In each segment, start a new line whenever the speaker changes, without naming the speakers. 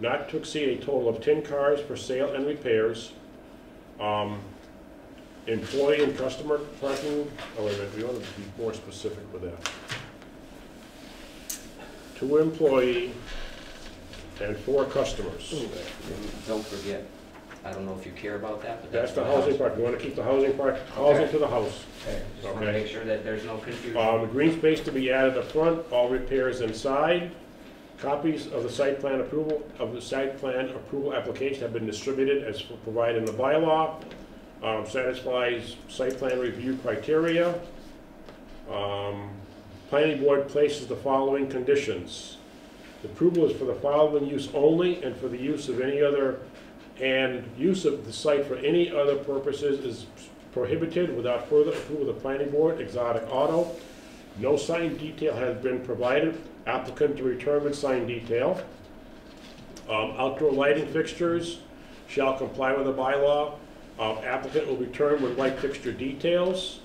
not to exceed a total of ten cars for sale and repairs. Um, Employee and customer parking, oh, wait a minute, we ought to be more specific with that. Two employee and four customers.
And Don't forget, I don't know if you care about that, but
That's
that's.
the
what
housing
helps.
part, you want to keep the housing part, housing to the house.
Okay, Just want to
Okay.
make sure that there's no confusion.
Um, green space to be added up front, all repairs inside. Copies of the site plan approval, of the site plan approval application have been distributed as provided in the bylaw. Um, satisfies site plan review criteria. Um, planning board places the following conditions. The Approval is for the following use only and for the use of any other, and use of the site for any other purposes is prohibited without further approval of the planning board, exotic auto. No sign detail has been provided, applicant to return with sign detail. Um, outdoor lighting fixtures shall comply with the bylaw, Um, applicant will return with light fixture details.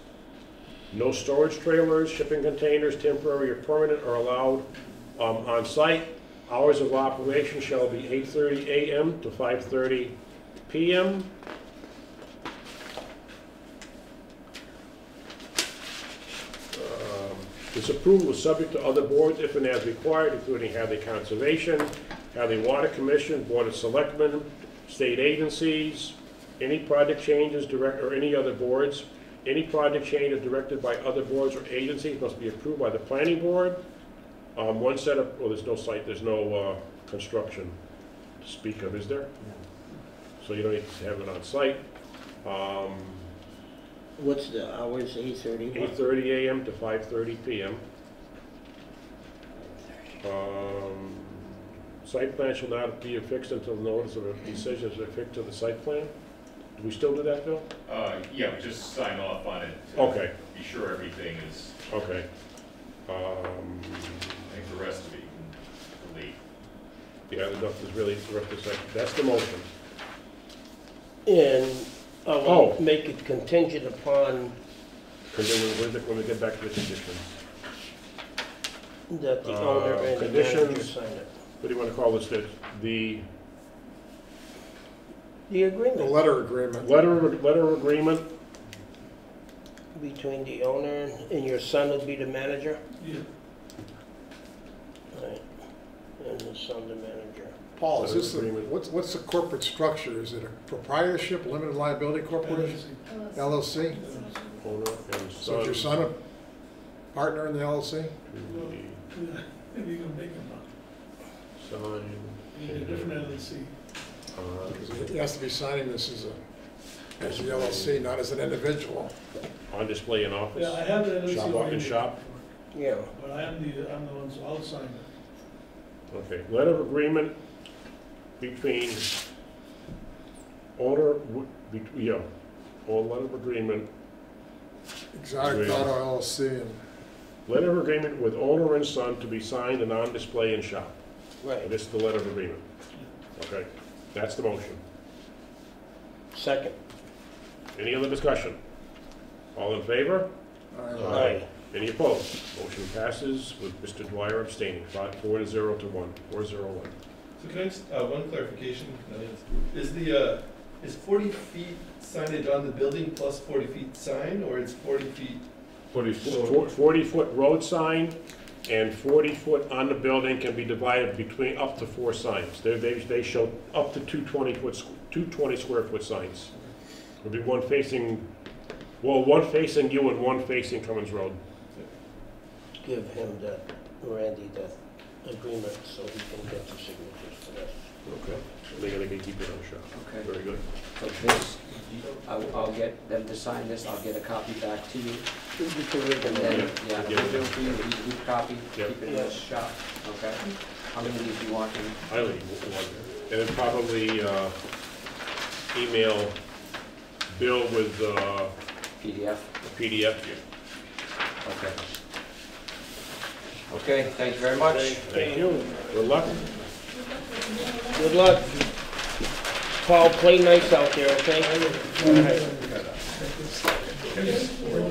No storage trailers, shipping containers, temporary or permanent, are allowed um, on site. Hours of operation shall be 8:30 a.m. to 5:30 p.m. Um, This approval is subject to other boards if and as required, including Hadley Conservation, Hadley Water Commission, Board of Selectmen, state agencies, any project changes direct, or any other boards. Any project change is directed by other boards or agencies must be approved by the planning board. Um, one set of, well, there's no site, there's no, uh, construction to speak of, is there? So you don't need to have it on site. Um,
What's the hours, eight thirty?
eight thirty AM to five thirty PM. Um, Site plan shall not be affixed until notice of a decision is affixed to the site plan. Do we still do that, Bill?
Uh, yeah, just sign off on it. to
Okay,
Be sure everything is,
okay. Um,
I think the rest of it you can delete.
yeah, enough is really, the rest is like- that's the motion.
And
Oh.
I'll make it contingent upon
And then when- when, when we get back to the conditions,
that the
Uh,
owner and the manager
conditions.
sign it.
what do you wanna call this, the, the
The
The
agreement
letter agreement,
letter, letter agreement?
between the owner and your son will be the manager? Right, and the son the manager.
Paul, is this, the-
Letter agreement.
what's, what's the corporate structure? Is it a proprietorship, limited liability corporation,
Uh,
LLC?
Owner and
So is your
son.
son a partner in the LLC?
to
Maybe you can make them up.
be Signed.
You need a different E LLC.
on-
Because he has to be signing this as a, as the LLC, not as an individual.
On display in
Yeah, I
office,
have the LLC.
Shop, walk-in
already.
shop?
Yeah,
But I am the, I'm the one, so I'll sign it.
okay, letter of agreement between owner, w- be- yeah, or letter of agreement,
Exotic
Agreed.
Auto LLC and
letter of agreement with owner and son to be signed and on display in shop. And
right.
this is the letter of agreement. Okay, that's the motion.
Second.
Any other discussion? All in favor?
uh,
Aye.
Any opposed? Motion passes with Mr. Dwyer abstaining, five, four to zero to one, four zero one.
So can I just, uh, one clarification, uh, is the, uh, is forty feet signage on the building plus forty feet sign, or it's forty feet?
Forty-foot road sign and forty-foot on the building can be divided between up to four signs. They, they, they show up to two twenty-foot, two twenty square foot signs. There'll be one facing, well, one facing you and one facing Cummins Road.
Give him that, Randy, that agreement so he can get the signatures for that.
Okay. They're gonna keep it on shop.
Okay,
Very good.
so this, I'll, I'll get them to sign this, I'll get a copy back to you,
You can read
and
them
then,
all.
yeah,
Yeah.
it'll be a good copy, keep
Yep.
it in the shop, okay? How many do you want? in?
I leave one, and then probably, uh, email Bill with, uh,
PDF?
a PDF.
Okay. Okay, thank you very much.
Thank you. Good luck.
Good luck. Paul, play nice out there, okay? All right.
Yes.
uh,